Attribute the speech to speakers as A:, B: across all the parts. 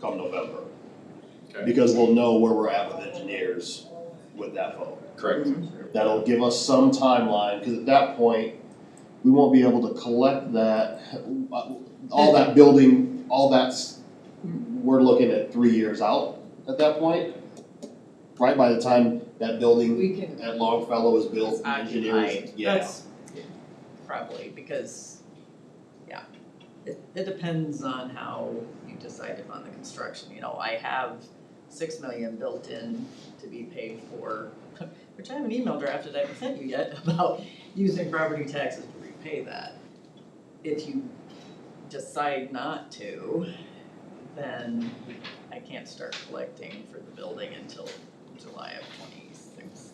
A: come November.
B: Okay.
A: Because we'll know where we're at with engineers with that vote.
B: Correct.
A: That'll give us some timeline, because at that point, we won't be able to collect that, all that building, all that's, we're looking at three years out at that point. Right by the time that building
C: We can,
A: at Longfellow is built,
C: It's
A: engineers,
C: occupied.
A: yeah.
C: that's probably because, yeah. It it depends on how you decide upon the construction, you know, I have six million built in to be paid for, which I have an email drafted I haven't sent you yet about using property taxes to repay that. If you decide not to, then I can't start collecting for the building until July of twenty-six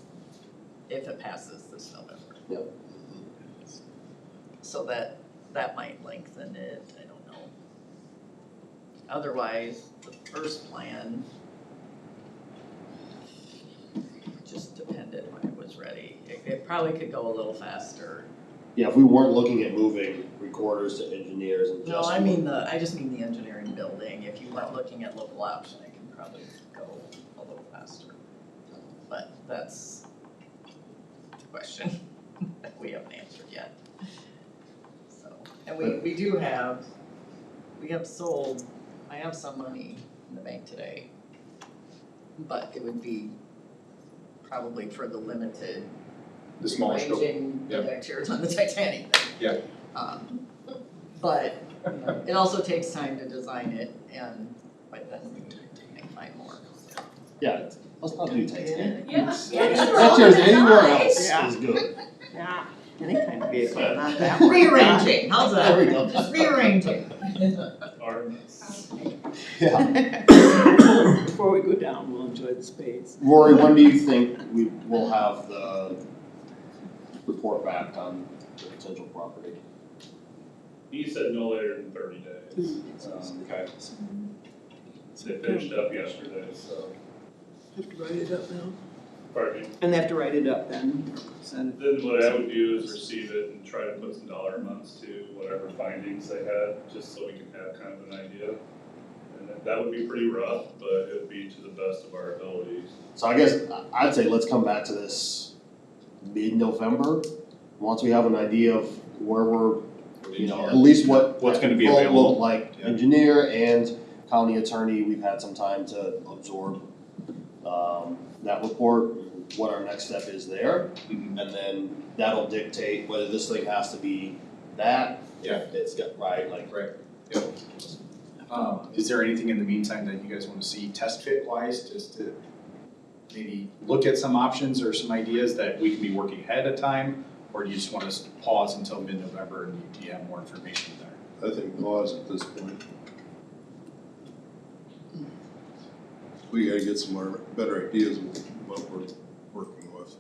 C: if it passes this November.
A: Yep.
C: So that, that might lengthen it, I don't know. Otherwise, the first plan just depended when it was ready. It, it probably could go a little faster.
A: Yeah, if we weren't looking at moving recorders to engineers and
C: No,
A: just.
C: I mean the, I just mean the engineering building. If you weren't looking at local option, it can probably go a little faster. But that's the question that we haven't answered yet. So, and we, we do have, we have sold, I have some money in the bank today. But it would be probably for the limited
B: The smaller scope.
C: Arranging
B: yeah.
C: the deck chairs on the Titanic.
B: Yeah.
C: Um, but, you know, it also takes time to design it and, but then we can find more.
A: Yeah, let's not do Titanic.
D: Yeah.
A: That chair's anywhere else
E: Yeah.
A: is good.
E: Yeah, any kind of vehicle,
A: Yeah.
E: not that one.
C: Rearranging, how's that?
A: There we go.
C: Just rearranging.
A: Yeah.
E: Before we go down, we'll enjoy the space.
A: Rory, when do you think we will have the report back on the potential property?
F: He said no later than thirty days. Um,
A: Okay.
F: They finished up yesterday, so,
E: Have to write it up now.
F: pardon me.
E: And they have to write it up then, send it.
F: Then what I would do is receive it and try to put some dollar amounts to whatever findings they had, just so we can have kind of an idea. And that- that would be pretty rough, but it would be to the best of our abilities.
A: So I guess I- I'd say let's come back to this mid-November, once we have an idea of where we're, you know, at least what.
B: What's gonna be
A: what it'll look
B: available.
A: Like
B: Yeah.
A: engineer and county attorney, we've had some time to absorb um that report, what our next step is there.
B: Mhm.
A: And then that'll dictate whether this thing has to be that.
B: Yeah.
A: It's got, right, like,
B: Um, is there anything in the meantime that you guys wanna see test fit wise, just to maybe look at some options or some ideas that we can be working ahead of time? Or do you just want us to pause until mid-November and you- you have more information there?
G: I think pause at this point. We gotta get some more, better ideas of what we're working with.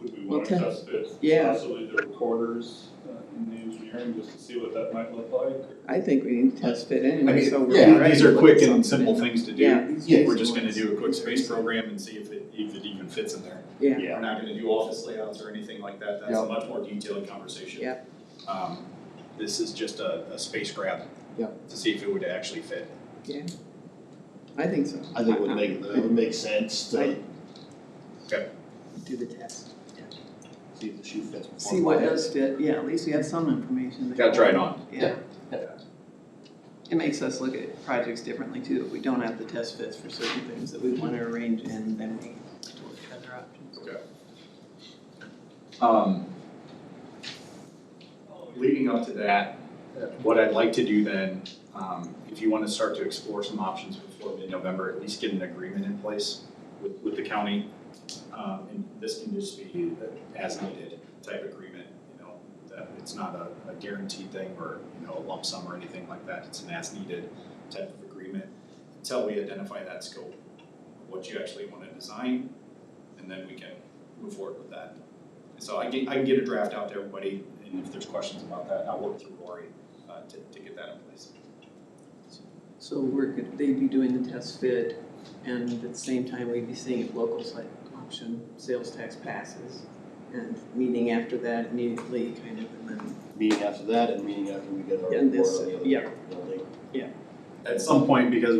F: Would we wanna
E: Okay.
F: test fit
E: Yeah.
F: possibly the recorders uh, in the engineering, just to see what that might look like?
E: I think we need to test fit anyway, so we're
A: yeah,
E: ready
B: These
E: to
B: are
E: look
B: quick
E: at
B: and
E: something.
B: simple things to do.
E: Yeah, these
A: Yeah,
E: are
B: We're just gonna
E: ones.
B: do a quick space program and see if it, if it even fits in there.
E: Yeah,
A: yeah.
B: We're not gonna do office layouts or anything like that, that's
A: Yeah.
B: a much more detailed conversation.
E: Yeah.
B: Um, this is just a, a space grab.
A: Yeah.
B: To see if it would actually fit.
E: I think so.
A: I think it would make, it would make sense to
E: Right. Do the test.
A: see if the shoe fits. before
E: See what
A: buying it.
E: does fit, yeah, at least we have some information. that-
B: Gotta try it on.
E: Yeah.
A: Yeah.
E: It makes us look at projects differently too, if we don't have the test fits for certain things that we wanna arrange in, then we look at other options.
B: Um, leading up to that, what I'd like to do then, um, if you wanna start to explore some options before mid-November, at least get an agreement in place with, with the county. Um, and this can just be a as needed type agreement, you know, that it's not a, a guaranteed thing or, you know, a lump sum or anything like that, it's an as needed type of agreement. Until we identify that scope, what you actually wanna design, and then we can move forward with that. So I can, I can get a draft out to everybody, and if there's questions about that, I'll work through Rory, uh, to, to get that in place.
E: So we're, good- they'd be doing the test fit, and at the same time, we'd be seeing if local site option sales tax passes. And meeting after that immediately, kind of, and then,
A: Meeting after that and meeting after we get our
E: And
A: report
E: this,
A: on the other
E: yeah.
A: building.
B: At some point, because